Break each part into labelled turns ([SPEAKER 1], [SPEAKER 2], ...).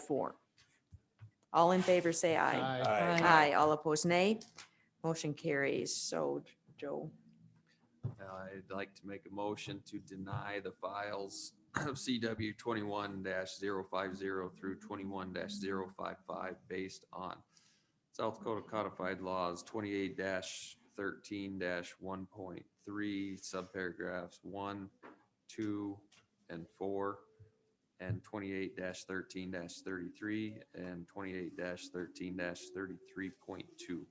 [SPEAKER 1] four. All in favor, say aye.
[SPEAKER 2] Aye.
[SPEAKER 1] Aye, all opposed, nay. Motion carries. So Joe,
[SPEAKER 3] Uh, I'd like to make a motion to deny the files of CW twenty-one 50 through twenty-one 55 based on South Dakota codified laws twenty-eight thirteen one point three, subparagraphs one, two, and four, and twenty-eight thirteen thirty-three, and twenty-eight thirteen thirty-three point two.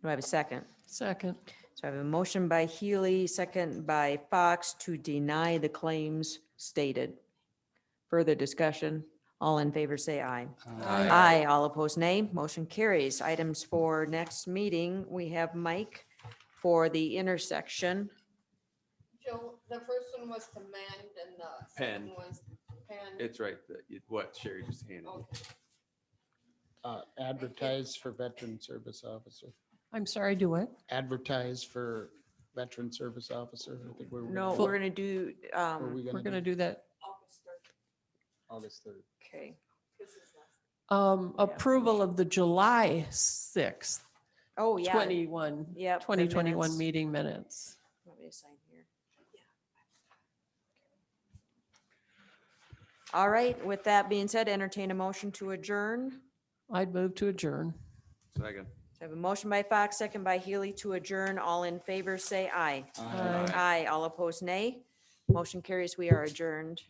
[SPEAKER 1] do I have a second?
[SPEAKER 2] Second.
[SPEAKER 1] So I have a motion by Healy, second by Fox to deny the claims stated. Further discussion. All in favor, say aye. Aye, all opposed, nay. Motion carries. Items for next meeting, we have Mike for the intersection.
[SPEAKER 4] Joe, the first one was to mend and the
[SPEAKER 3] Pen.
[SPEAKER 4] second was pen.
[SPEAKER 3] It's right, the- what Sherry just handed. you.
[SPEAKER 4] Okay.
[SPEAKER 5] Uh, Advertise for veteran service officer.
[SPEAKER 2] I'm sorry, do what?
[SPEAKER 5] Advertise for veteran service officer. I think we're.
[SPEAKER 1] No, we're gonna do,
[SPEAKER 5] Are
[SPEAKER 1] um,
[SPEAKER 5] we
[SPEAKER 2] We're
[SPEAKER 5] gonna
[SPEAKER 2] gonna
[SPEAKER 5] do
[SPEAKER 2] do that.
[SPEAKER 4] August third,
[SPEAKER 5] August third?
[SPEAKER 1] okay,
[SPEAKER 4] this is last.
[SPEAKER 2] Um, approval of the July sixth,
[SPEAKER 1] oh, yeah.
[SPEAKER 2] twenty-one,
[SPEAKER 1] Yep, the
[SPEAKER 2] twenty twenty-one
[SPEAKER 1] minutes.
[SPEAKER 2] meeting minutes.
[SPEAKER 1] Let me sign here. All right, with that being said, entertain a motion to adjourn.
[SPEAKER 2] I'd move to adjourn.
[SPEAKER 3] Second.
[SPEAKER 1] So I have a motion by Fox, second by Healy to adjourn. All in favor, say aye.
[SPEAKER 2] Aye.
[SPEAKER 1] Aye, all opposed, nay. Motion carries. We are adjourned.